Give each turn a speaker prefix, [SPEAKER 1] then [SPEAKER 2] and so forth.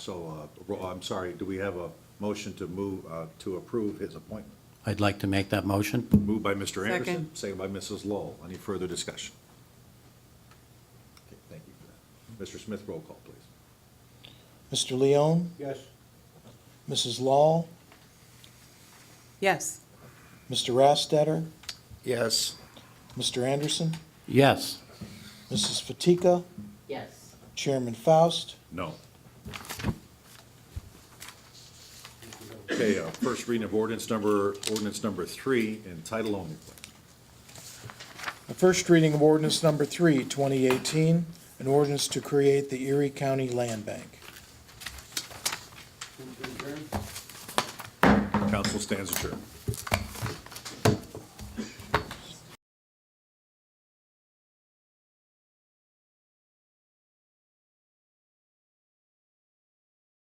[SPEAKER 1] So, uh, ro- I'm sorry, do we have a motion to move, uh, to approve his appointment?
[SPEAKER 2] I'd like to make that motion.
[SPEAKER 1] Moved by Mr. Anderson,
[SPEAKER 3] Second.
[SPEAKER 1] second by Mrs. Lowell. Any further discussion? Okay, Thank you for that. Mr. Smith, roll call, please.
[SPEAKER 4] Mr. Leone,
[SPEAKER 1] Yes.
[SPEAKER 4] Mrs. Law,
[SPEAKER 3] Yes.
[SPEAKER 4] Mr. Rastetter? Yes. Mr. Anderson,
[SPEAKER 2] Yes,
[SPEAKER 4] Mrs. Fatika,
[SPEAKER 5] Yes.
[SPEAKER 4] Chairman Faust,
[SPEAKER 1] No. Okay, uh, first reading of ordinance number, ordinance number three, in title only, please.
[SPEAKER 4] The first reading of ordinance number three, 2018, an ordinance to create the Erie County Land Bank.
[SPEAKER 1] Council stands adjourned.